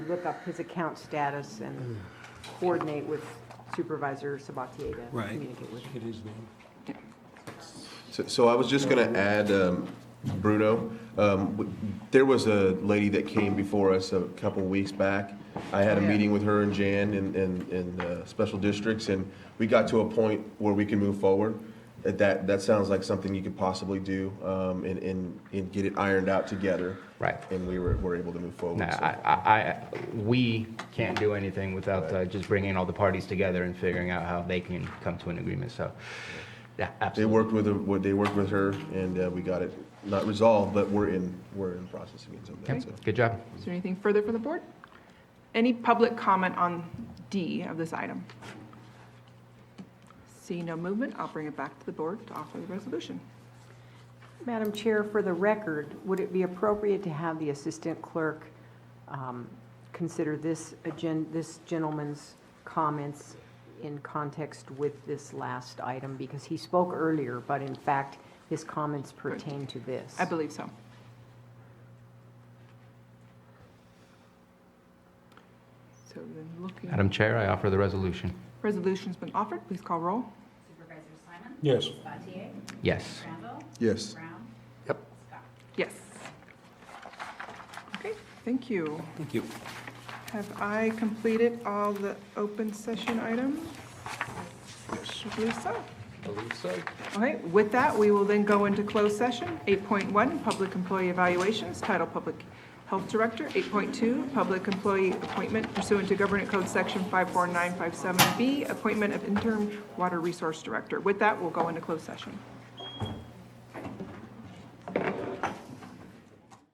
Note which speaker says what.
Speaker 1: look up his account status and coordinate with Supervisor Sabatier to
Speaker 2: Right.
Speaker 1: communicate with him.
Speaker 2: It is them.
Speaker 3: So- So I was just going to add, um, Bruno, um, w- there was a lady that came before us a couple weeks back. I
Speaker 4: Oh,
Speaker 3: had a meeting with her and Jan in, in, in uh, special districts, and we got to a point where we can move forward. That- That, that sounds like something you could possibly do um, and, and, and get it ironed out together.
Speaker 4: Right.
Speaker 3: And we were, were able to move forward.
Speaker 4: No,
Speaker 3: so.
Speaker 4: I, I, I, we can't do anything without uh, just bringing all the parties together and figuring out how they can come to an agreement, so, yeah,
Speaker 3: They
Speaker 4: absolutely.
Speaker 3: worked with, her- what- they worked with her, and uh, we got it, not resolved, but we're in, we're in the process of getting something,
Speaker 4: Okay,
Speaker 3: so.
Speaker 4: Good job.
Speaker 5: Is there anything further from the board? Any public comment on D of this item? See no movement, I'll bring it back to the board to offer the resolution.
Speaker 1: Madam Chair, for the record, would it be appropriate to have the Assistant Clerk um, consider this agen, this gentleman's comments in context with this last item? Because he spoke earlier, but in fact, his comments pertain to this.
Speaker 5: I believe so. So then looking,
Speaker 4: Madam Chair, I offer the resolution.
Speaker 5: resolution's been offered, please call roll.
Speaker 6: Supervisor Simon?
Speaker 2: Yes.
Speaker 6: Spatier?
Speaker 4: Yes.
Speaker 6: Randall?
Speaker 3: Yes.
Speaker 6: Brown? Scott?
Speaker 5: Yes. Okay, thank you.
Speaker 2: Thank you.
Speaker 5: Have I completed all the open session items? Yes. I believe so.
Speaker 4: Believe so.
Speaker 5: Okay, with that, we will then go into closed session. 8.1, Public Employee Evaluations, Title Public Health Director. 8.2, Public Employee Appointment pursuant to Government Code Section 54957B, Appointment of Interim Water Resource Director. With that, we'll go into closed session.